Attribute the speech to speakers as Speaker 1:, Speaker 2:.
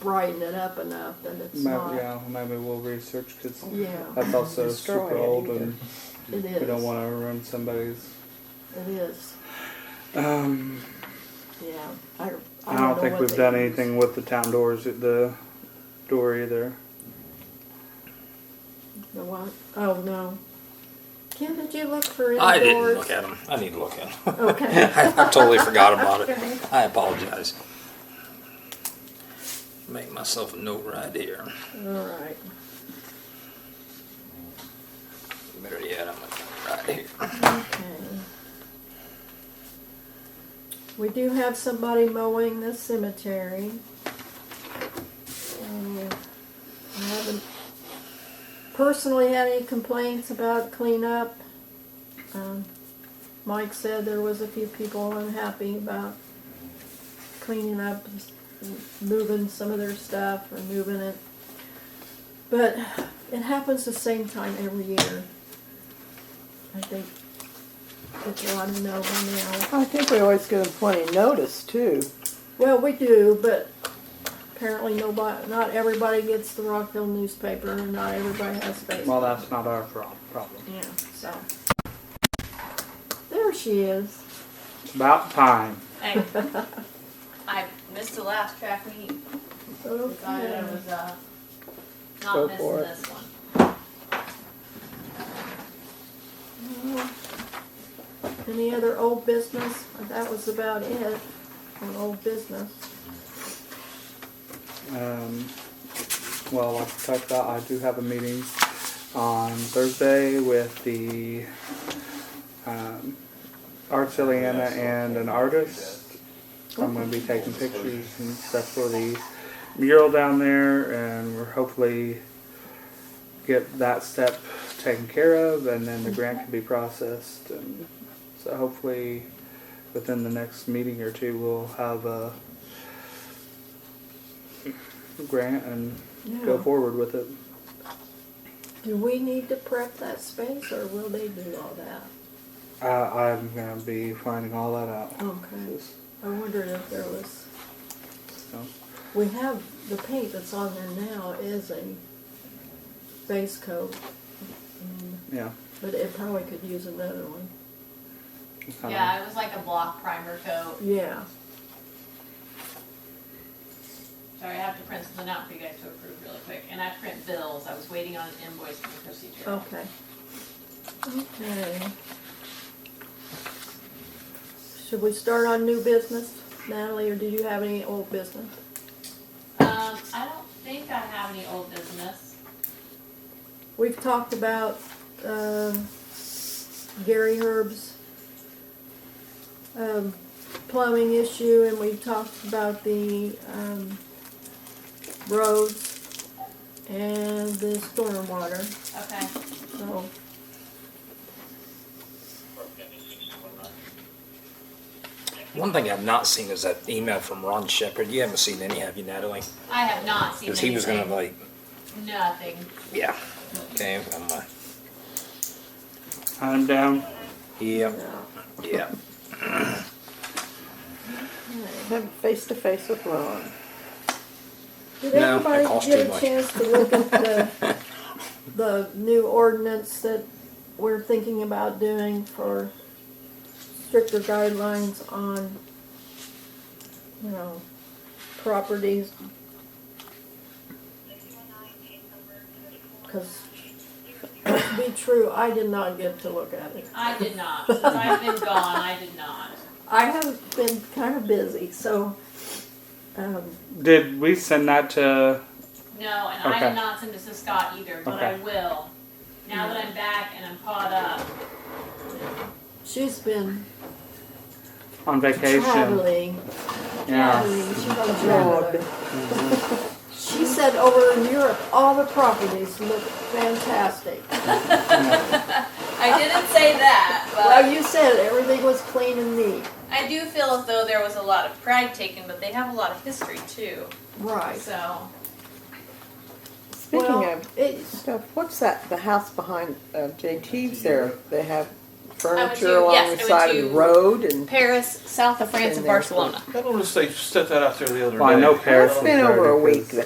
Speaker 1: brighten it up enough that it's
Speaker 2: Maybe,
Speaker 1: not.
Speaker 2: yeah, maybe we'll research because
Speaker 1: Yeah,
Speaker 2: that's also
Speaker 3: Destroy
Speaker 2: super
Speaker 3: it
Speaker 2: old
Speaker 3: either.
Speaker 2: and
Speaker 1: it is.
Speaker 2: we don't want to ruin somebody's.
Speaker 1: It is.
Speaker 2: Um,
Speaker 1: Yeah. I, I, don't,
Speaker 2: I don't
Speaker 1: know
Speaker 2: think
Speaker 1: what
Speaker 2: we've
Speaker 1: they
Speaker 2: done
Speaker 1: use.
Speaker 2: anything with the town doors at the door either.
Speaker 1: The what? Oh no. Kim, did you look for any
Speaker 4: I didn't
Speaker 1: doors?
Speaker 4: look at them. I need to look at them.
Speaker 1: Okay.
Speaker 4: I totally forgot about it.
Speaker 1: Okay.
Speaker 4: I apologize. Make myself a note right here.
Speaker 1: All right.
Speaker 4: Better yet, I'm gonna right here.
Speaker 1: Okay. We do have somebody mowing the cemetery. Um, I haven't personally had any complaints about cleanup. Um, Mike said there was a few people unhappy about cleaning up, and moving some of their stuff or moving it. But it happens the same time every year. I think people ought to know by now.
Speaker 3: I think we always give them plenty notice too.
Speaker 1: Well, we do, but apparently nobody, not everybody gets the Rockville newspaper, and not everybody has Facebook.
Speaker 2: Well, that's not our prob- problem.
Speaker 1: yeah, so there she is.
Speaker 2: It's about time.
Speaker 5: Hey. I missed the last track meeting. Decided I
Speaker 1: Okay.
Speaker 5: was uh, not
Speaker 3: Go
Speaker 5: missing
Speaker 3: for it.
Speaker 5: this one.
Speaker 1: Any other old business? That was about it on old business.
Speaker 2: Um, well, like I talked about, I do have a meeting on Thursday with the um, Arts Ileana and an artist. I'm going to be taking pictures and stuff for the mural down there, and we're hopefully get that step taken care of, and then the grant can be processed. And so hopefully, within the next meeting or two, we'll have a grant and go
Speaker 1: Yeah.
Speaker 2: forward with it.
Speaker 1: Do we need to prep that space, or will they do all that?
Speaker 2: Uh, I'm gonna be finding all that out.
Speaker 1: Okay.
Speaker 2: Just,
Speaker 1: I wondered if there was.
Speaker 2: you know,
Speaker 1: We have the paint that's on there now is a base coat,
Speaker 2: yeah.
Speaker 1: but it probably could use another one.
Speaker 2: it's kinda-
Speaker 5: Yeah, it was like a block primer coat.
Speaker 1: Yeah.
Speaker 5: Sorry, I have to print something out for you guys to approve really quick. And I print bills. I was waiting on an invoice for the procedure.
Speaker 1: Okay. Okay. Should we start on new business, Natalie, or did you have any old business?
Speaker 5: Um, I don't think I have any old business.
Speaker 1: We've talked about um, Gary Herb's um, plumbing issue, and we talked about the um, roads and the stormwater.
Speaker 5: Okay.
Speaker 1: So
Speaker 4: One thing I've not seen is that email from Ron Shepard. You haven't seen any, have you, Natalie?
Speaker 5: I have not seen
Speaker 4: Because he was gonna
Speaker 5: anything.
Speaker 4: like,
Speaker 5: Nothing.
Speaker 4: yeah. Okay, I'm, uh,
Speaker 2: I'm down.
Speaker 4: yeah, yeah.
Speaker 3: Have face to face with Ron.
Speaker 1: Did
Speaker 4: No, that
Speaker 1: everybody
Speaker 4: costs too
Speaker 1: get a
Speaker 4: much.
Speaker 1: chance to look at the, the new ordinance that we're thinking about doing for stricter guidelines on, you know, properties? Cause to be true, I did not get to look at it.
Speaker 5: I did not. Since I've been gone, I did not.
Speaker 1: I have been kind of busy, so, um,
Speaker 2: Did we send that to?
Speaker 5: No, and I
Speaker 2: Okay.
Speaker 5: did not send this to Scott either, but I
Speaker 2: Okay.
Speaker 5: will. Now that I'm back and I'm caught up,
Speaker 1: she's been
Speaker 2: On vacation.
Speaker 1: traveling.
Speaker 2: Yeah.
Speaker 1: traveling, she's on
Speaker 3: Lord,
Speaker 1: travel. She said over in Europe, all the properties look fantastic.
Speaker 5: I didn't say that,
Speaker 1: Well, you said everything was clean and neat.
Speaker 5: I do feel as though there was a lot of pride taken, but they have a lot of history too.
Speaker 1: Right.
Speaker 5: So
Speaker 3: Speaking
Speaker 1: Well,
Speaker 3: of
Speaker 1: it's,
Speaker 3: stuff, what's that, the house behind uh, JT's there? They have furniture along
Speaker 5: yes, I
Speaker 3: the
Speaker 5: went
Speaker 3: side of
Speaker 5: to-
Speaker 3: the road and.
Speaker 5: Paris, south of France,
Speaker 3: Been
Speaker 5: and
Speaker 3: there for-
Speaker 5: Barcelona.
Speaker 6: I noticed they set that out there the other day.
Speaker 2: Well, I know Paris
Speaker 3: It's
Speaker 2: is
Speaker 3: been over a
Speaker 2: dirty 'cause
Speaker 3: week